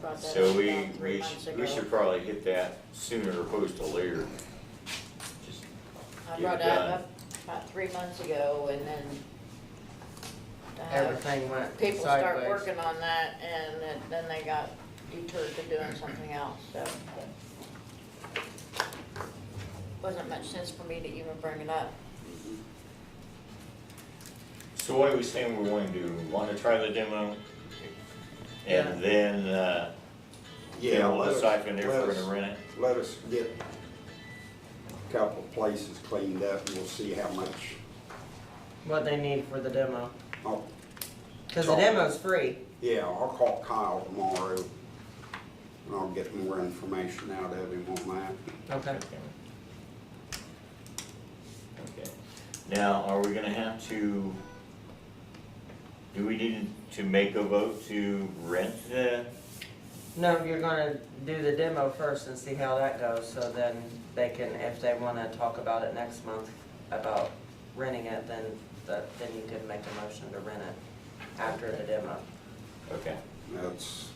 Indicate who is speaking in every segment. Speaker 1: brought that
Speaker 2: So
Speaker 1: up
Speaker 2: we,
Speaker 1: about three
Speaker 2: we,
Speaker 1: months
Speaker 2: should-
Speaker 1: ago.
Speaker 2: we should probably hit that sooner opposed to later. Just get
Speaker 1: I
Speaker 2: it
Speaker 1: brought that
Speaker 2: done.
Speaker 1: up about three months ago and then. uh,
Speaker 3: Everything went sideways.
Speaker 1: People start working on that and then- then they got deterred to doing something else, so. Wasn't much sense for me to even bring it up.
Speaker 2: So what are we saying we want to do? Want to try the demo?
Speaker 3: Yeah.
Speaker 2: And then, uh,
Speaker 4: Yeah,
Speaker 2: then we'll
Speaker 4: let us-
Speaker 2: siphon if
Speaker 4: let
Speaker 2: we're
Speaker 4: us-
Speaker 2: gonna rent it?
Speaker 4: Let us get a couple of places cleaned up and we'll see how much,
Speaker 3: What they need for the demo,
Speaker 4: I'll,
Speaker 3: cause the demo's free.
Speaker 4: yeah, I'll call Kyle tomorrow and I'll get more information out of him on that.
Speaker 3: Okay.
Speaker 2: Okay. Now, are we gonna have to, do we need to make a vote to rent the?
Speaker 3: No, you're gonna do the demo first and see how that goes, so then they can, if they wanna talk about it next month, about renting it, then, that, then you can make a motion to rent it after the demo.
Speaker 2: Okay.
Speaker 4: That's,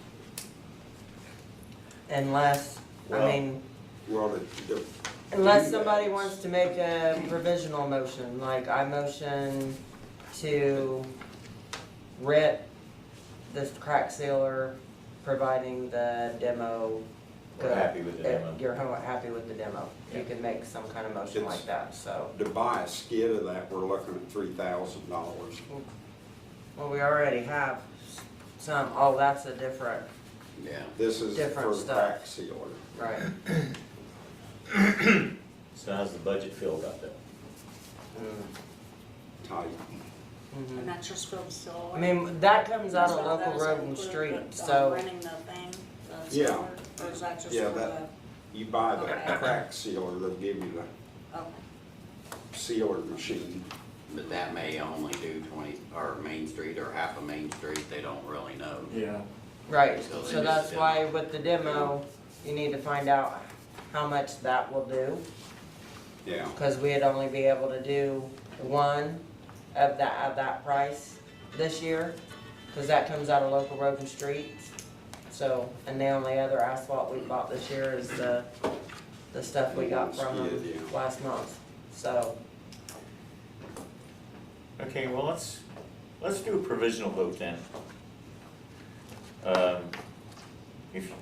Speaker 3: Unless, I
Speaker 2: Well-
Speaker 3: mean,
Speaker 4: well, the, the.
Speaker 3: unless somebody wants to make a provisional motion, like I motion to rent this crack sealer, providing the demo.
Speaker 2: We're happy with the demo.
Speaker 3: If You're ho- happy with the demo, you
Speaker 2: Yeah.
Speaker 3: can make some kind of motion like that, so.
Speaker 4: To buy a skid of that, we're looking at three thousand dollars.
Speaker 3: Well, we already have some, oh, that's a different,
Speaker 4: Yeah. This is
Speaker 3: Different
Speaker 4: for the
Speaker 3: stuff.
Speaker 4: crack sealer.
Speaker 3: right,
Speaker 2: So how's the budget feel about that?
Speaker 3: Mm-hmm.
Speaker 4: type.
Speaker 3: mhm.
Speaker 5: And that's just for the solar.
Speaker 3: I mean, that comes out
Speaker 5: So
Speaker 3: of local
Speaker 5: that is
Speaker 3: road and
Speaker 5: included
Speaker 3: street,
Speaker 5: with, um,
Speaker 3: so.
Speaker 5: Renting the thing, the
Speaker 4: Yeah.
Speaker 5: solar, or is that just
Speaker 4: Yeah,
Speaker 5: for
Speaker 4: that-
Speaker 5: the,
Speaker 4: You buy the
Speaker 5: Okay.
Speaker 4: crack sealer, they'll give you the
Speaker 5: okay.
Speaker 4: sealer machine.
Speaker 6: But that may only do twenty, or Main Street, or half of Main Street, they don't really know.
Speaker 7: Yeah.
Speaker 3: Right,
Speaker 6: So they
Speaker 3: so
Speaker 6: just
Speaker 3: that's
Speaker 6: demo.
Speaker 3: why with the demo, you need to find out how much that will do,
Speaker 4: Yeah,
Speaker 3: because we'd only be able to do one of that, of that price this year, because that comes out of local road and streets. So, and the only other asphalt we bought this year is the, the stuff we got from
Speaker 4: Yeah,
Speaker 3: them
Speaker 4: yeah.
Speaker 3: last month, so.
Speaker 2: Okay, well, let's, let's do a provisional vote then. Um, If,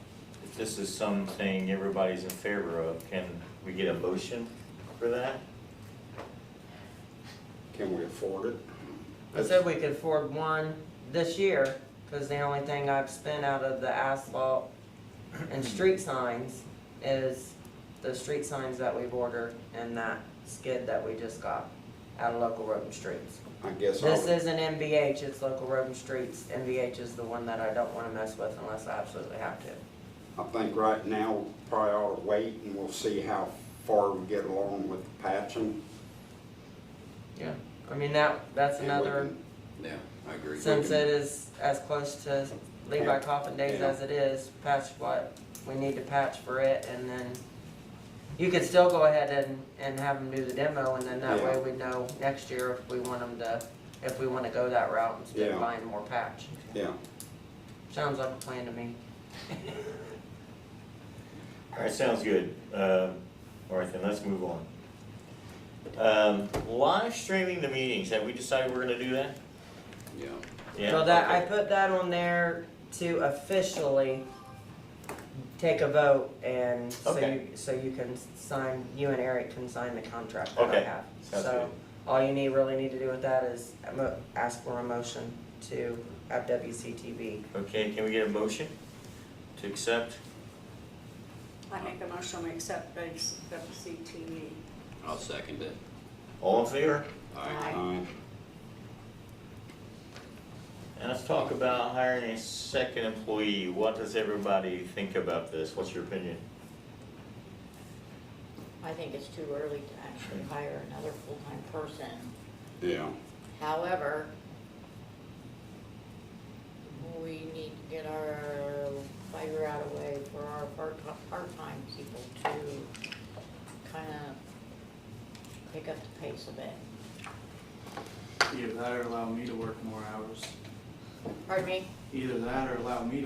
Speaker 2: if this is something everybody's in favor of, can we get a motion for that?
Speaker 4: can we afford it?
Speaker 3: I said we could afford one this year, cause the only thing I've spent out of the asphalt and street signs is the street signs that we've ordered and that skid that we just got out of local road and streets.
Speaker 4: I guess I
Speaker 3: This
Speaker 4: would,
Speaker 3: isn't MVH, it's local road and streets. MVH is the one that I don't wanna mess with unless I absolutely have to.
Speaker 4: I think right now, we probably ought to wait and we'll see how far we get along with the patching.
Speaker 3: Yeah. I mean, that, that's
Speaker 4: And we
Speaker 3: another,
Speaker 4: can-
Speaker 6: Yeah, I agree.
Speaker 3: since it is as close to Levi Coffin Days
Speaker 4: Yeah.
Speaker 3: as it is, patch what we need to patch for it and then you could still go ahead and, and have them do the demo and then that way we
Speaker 4: Yeah.
Speaker 3: know next year if we want them to, if we wanna go that route instead
Speaker 4: Yeah.
Speaker 3: of buying more patch.
Speaker 4: Yeah,
Speaker 3: Sounds like a plan to me.
Speaker 2: All right, sounds good. Um, All right, then, let's move on. Um, Live streaming the meetings, have we decided we're gonna do that?
Speaker 6: Yeah,
Speaker 2: Yeah,
Speaker 3: So that, I
Speaker 2: okay.
Speaker 3: put that on there to officially take a vote and so you,
Speaker 2: Okay.
Speaker 3: so you can sign, you and Eric can sign the contract that I
Speaker 2: Okay,
Speaker 3: have.
Speaker 2: sounds
Speaker 3: So, all you need, really need to do with that is a mo- ask for a motion to have WCTV.
Speaker 2: Okay, can we get a motion to accept?
Speaker 5: I make a motion to accept base WCTV.
Speaker 6: I'll second it.
Speaker 2: All in favor?
Speaker 6: Alright,
Speaker 4: I,
Speaker 2: And let's talk about hiring a second employee. What does everybody think about this? What's your opinion?
Speaker 1: I think it's too early to actually hire another full-time person.
Speaker 4: yeah,
Speaker 1: However, we need to get our, figure out a way for our part, part-time people to kinda pick up the pace a bit.
Speaker 7: Either that or allow me to work more hours.
Speaker 1: Pardon me?
Speaker 7: Either that or allow me to